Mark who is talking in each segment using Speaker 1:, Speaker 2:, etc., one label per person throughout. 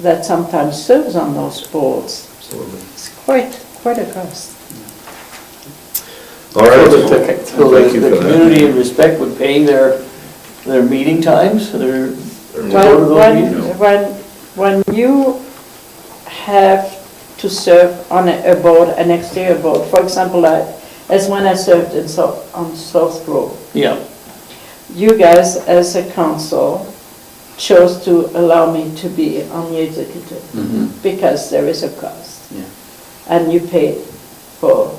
Speaker 1: that sometimes serves on those boards.
Speaker 2: Absolutely.
Speaker 1: It's quite, quite a cost.
Speaker 2: All right.
Speaker 3: So
Speaker 2: well,
Speaker 3: the- So
Speaker 2: thank
Speaker 3: the,
Speaker 2: you
Speaker 3: the
Speaker 2: for that.
Speaker 3: community in respect would pay their, their meeting times, their,
Speaker 2: Or-
Speaker 3: Well-
Speaker 1: When,
Speaker 3: those
Speaker 1: when,
Speaker 3: meetings?
Speaker 1: when, when you have to serve on a a board, an exterior board, for example, I- as when I served in South, on South Grove,
Speaker 3: yeah,
Speaker 1: you guys as a council chose to allow me to be on the executive
Speaker 4: Mhm.
Speaker 1: because there is a cost.
Speaker 4: Yeah.
Speaker 1: And you paid for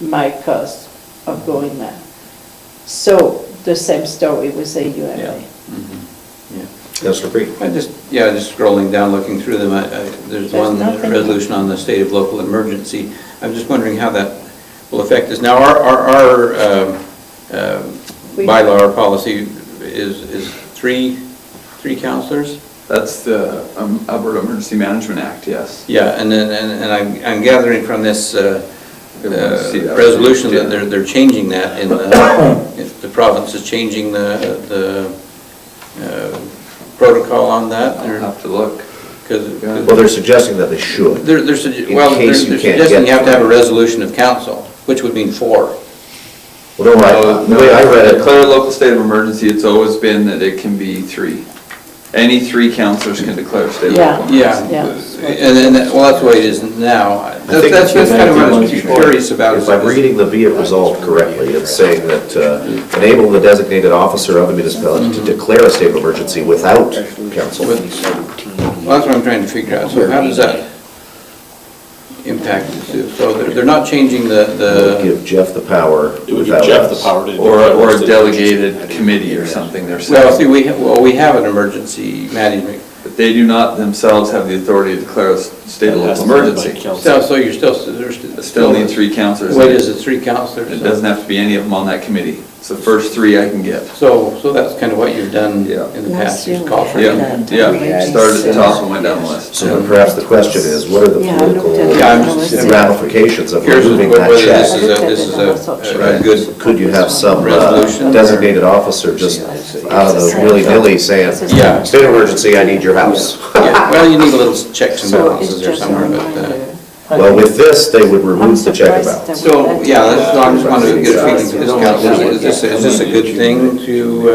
Speaker 1: my cost of going there. So the same story with
Speaker 3: Yeah.
Speaker 1: AUMA.
Speaker 4: Mhm. Yeah.
Speaker 2: Councilor Creed.
Speaker 4: I just, yeah, just scrolling down, looking through them, I, I, there's
Speaker 1: There's
Speaker 4: one
Speaker 1: nothing.
Speaker 4: resolution on the state of local emergency. I'm just wondering how that will affect us. Now, our, our, our um, um,
Speaker 1: We-
Speaker 4: bylaw, our policy is, is three, three counselors?
Speaker 5: That's the um, Alberta Emergency Management Act, yes.
Speaker 4: Yeah, and then, and, and I'm, I'm gathering from this, uh,
Speaker 5: Everyone see
Speaker 4: uh,
Speaker 5: that.
Speaker 4: resolution that they're, they're changing that in the, if the province is changing the, the uh, protocol on that.
Speaker 5: I'll have to look.
Speaker 4: Because,
Speaker 2: Well, they're suggesting that they should.
Speaker 4: They're, they're, sugge- well, they're they're
Speaker 2: case you can't
Speaker 4: suggesting
Speaker 2: get
Speaker 4: you have to have a
Speaker 2: them.
Speaker 4: resolution of council, which would mean four.
Speaker 2: Well, no,
Speaker 4: Uh,
Speaker 2: I- the way I read it,
Speaker 5: Declare a Uh, local state of emergency, it's always been that it can be three. Any three councillors can declare a state of
Speaker 1: Yeah.
Speaker 5: local emergency.
Speaker 4: Yeah.
Speaker 1: Yeah.
Speaker 4: And then, that- well, that's the way it is now. That's,
Speaker 2: think
Speaker 4: that's
Speaker 2: it's
Speaker 4: that's kind of what I was
Speaker 5: been
Speaker 4: curious about.
Speaker 2: if I'm reading the be it resolved correctly, it's saying that uh, enable the designated officer of a municipality
Speaker 4: Mm-hmm.
Speaker 2: to declare a state of emergency without council.
Speaker 4: With- Well, that's what I'm trying to figure out. So how does that impact us? So they're, they're not changing the, the,
Speaker 2: Give Jeff the power
Speaker 6: It would give
Speaker 2: without
Speaker 6: Jeff the
Speaker 2: us.
Speaker 6: power to.
Speaker 5: Or, or a delegated committee or something, they're
Speaker 4: well, see,
Speaker 5: saying.
Speaker 4: we, ha- well, we have an emergency management.
Speaker 5: But they do not themselves have the authority to declare a s- state of local emergency.
Speaker 4: So, so you're still, there's.
Speaker 5: It Still need three councillors.
Speaker 4: What is it, three councilors?
Speaker 5: It doesn't have to be any of them on that committee. It's the first three I can get.
Speaker 4: So, so that's kind of what you've done
Speaker 5: Yeah.
Speaker 4: in the
Speaker 1: Last
Speaker 4: past,
Speaker 1: year
Speaker 4: just
Speaker 1: we
Speaker 4: call for
Speaker 1: had
Speaker 4: it.
Speaker 5: Yeah,
Speaker 1: that.
Speaker 5: yeah, started at the top and went down the list.
Speaker 2: So then perhaps the question is, what are the
Speaker 1: Yeah, I looked
Speaker 2: political
Speaker 1: at it.
Speaker 4: Yeah, I'm just-
Speaker 2: and ramifications of
Speaker 4: Curious
Speaker 2: removing
Speaker 4: whether
Speaker 2: that
Speaker 4: this is
Speaker 2: check?
Speaker 4: a, this is a- a
Speaker 1: Right.
Speaker 4: good.
Speaker 2: Could you have some uh,
Speaker 4: Resolution.
Speaker 2: designated officer just out of the willy-nilly saying,
Speaker 4: Yeah.
Speaker 2: state of emergency, I need your house?
Speaker 4: Yeah, Well, you need a little checks and
Speaker 1: So it's
Speaker 4: balances there
Speaker 1: just a
Speaker 4: somewhere, but, uh,
Speaker 1: reminder.
Speaker 2: Well, with this, they would remove the check
Speaker 1: surprised
Speaker 2: about.
Speaker 1: that-
Speaker 4: so, yeah, that's, I just wanted to get a feeling from this council, is this, is this a good thing to, uh,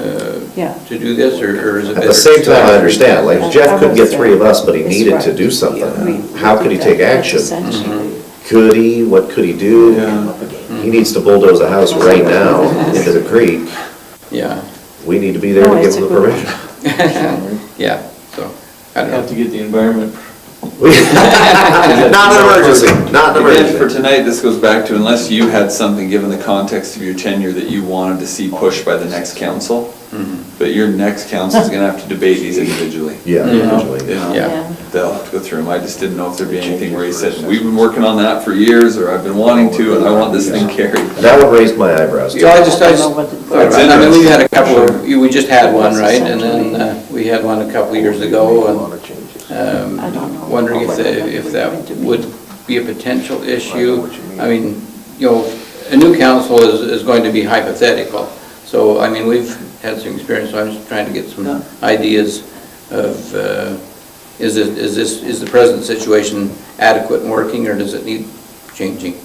Speaker 4: uh,
Speaker 1: Yeah.
Speaker 4: to do this, or or is it?
Speaker 2: At
Speaker 4: better
Speaker 2: the same
Speaker 4: to-
Speaker 2: time, I understand, like Jeff couldn't get three of us, but he
Speaker 1: It's
Speaker 2: needed to
Speaker 1: right.
Speaker 2: do
Speaker 1: We-
Speaker 2: something. uh,
Speaker 1: we
Speaker 2: How could he
Speaker 1: did
Speaker 2: take
Speaker 1: that
Speaker 2: action?
Speaker 1: essentially.
Speaker 2: Could he, what could he do? He needs to bulldoze a house right now into the creek.
Speaker 4: Yeah,
Speaker 2: We need to be there
Speaker 1: No,
Speaker 2: to give
Speaker 1: it's
Speaker 2: him
Speaker 1: a
Speaker 2: the
Speaker 1: good-
Speaker 2: permission.
Speaker 4: yeah, so, I don't
Speaker 3: have
Speaker 4: know.
Speaker 3: to get the environment.
Speaker 2: Not an emergency, not an
Speaker 5: Again, for
Speaker 2: emergency.
Speaker 5: tonight, this goes back to unless you had something, given the context of your tenure, that you wanted to see pushed by the next council,
Speaker 4: Mm-hmm.
Speaker 5: but your next council's gonna have to debate these individually.
Speaker 2: Yeah,
Speaker 5: You
Speaker 2: usually.
Speaker 5: know,
Speaker 4: Yeah.
Speaker 5: They'll have to go through them. I just didn't know if there'd be anything where you said, we've been working on that for years, or I've been wanting to, and I want this thing carried.
Speaker 2: That one raised my eyebrows. too.
Speaker 4: Yeah, I just, I
Speaker 1: I
Speaker 4: just,
Speaker 1: don't know what-
Speaker 4: thought about it. I mean, we've had a couple, of- you- we just had one, right? And then uh, we had one a couple of years ago, and um,
Speaker 1: I don't know.
Speaker 4: wondering if, the- if that would be a potential issue. I mean, you know, a new council is, is going to be hypothetical, so, I mean, we've had some experience, so I'm just trying to get some ideas of, uh, is it, is this, is the present situation adequate and working, or does it need changing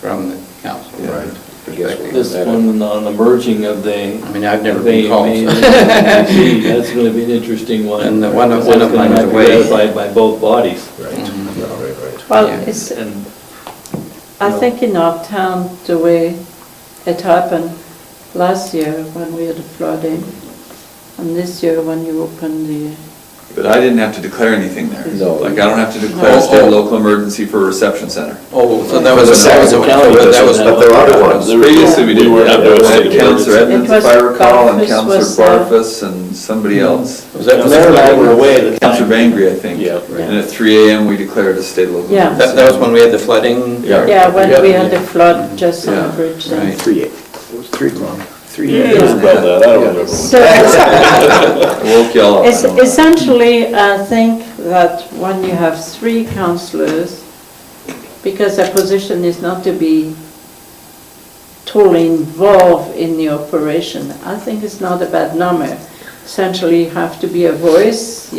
Speaker 4: from the council?
Speaker 5: Right.
Speaker 4: perspective?
Speaker 3: This one on the merging of the.
Speaker 4: I mean, I've never
Speaker 3: they-
Speaker 4: been called,
Speaker 3: they-
Speaker 4: so.
Speaker 3: That's gonna be an interesting one.
Speaker 4: And the one of-
Speaker 3: Because
Speaker 4: one
Speaker 3: it's
Speaker 4: of
Speaker 3: gonna
Speaker 4: mine was
Speaker 3: have to be
Speaker 4: away.
Speaker 3: ratified by both bodies.
Speaker 2: Right, right, right, right.
Speaker 1: Well,
Speaker 4: Yeah.
Speaker 1: it's,
Speaker 3: And
Speaker 1: I think in our town, the way it happened last year when we had the flooding, and this year when you opened the,
Speaker 5: But I didn't have to declare anything there.
Speaker 2: No.
Speaker 5: Like, I don't have to declare a state of local emergency for a reception center.
Speaker 4: Oh, so that was, a- that
Speaker 2: That
Speaker 4: was,
Speaker 2: was
Speaker 4: a-
Speaker 2: a
Speaker 4: that was,
Speaker 2: But there are ones.
Speaker 5: Previously, we did,
Speaker 6: We
Speaker 5: we
Speaker 6: were
Speaker 5: had
Speaker 6: under a state of emergency.
Speaker 5: Counselor Edmonds,
Speaker 1: It was
Speaker 5: if I recall, and
Speaker 1: Barfus
Speaker 5: Counselor
Speaker 1: was, uh, Mm-hmm.
Speaker 5: Barfus and somebody else.
Speaker 4: was that,
Speaker 3: Mayor and I
Speaker 4: that,
Speaker 3: were away at the
Speaker 5: Counselor
Speaker 3: time.
Speaker 5: Bangry, I think.
Speaker 6: Yeah.
Speaker 5: And at three AM, we declared a state of local.
Speaker 1: Yeah.
Speaker 5: emergency.
Speaker 4: that was when we had the flooding?
Speaker 5: Yeah.
Speaker 1: yeah, when we had the flood just on
Speaker 5: Yeah,
Speaker 1: the bridge. there.
Speaker 4: Right.
Speaker 7: Three, eight. It was three o'clock. Three.
Speaker 6: Yeah, it was about that, I don't remember.
Speaker 1: So
Speaker 5: I woke y'all up. I
Speaker 1: es-
Speaker 5: don't know.
Speaker 1: essentially, I think that when you have three councillors, because their position is not to be totally involved in the operation, I think it's not a bad number. Essentially, you have to be a voice,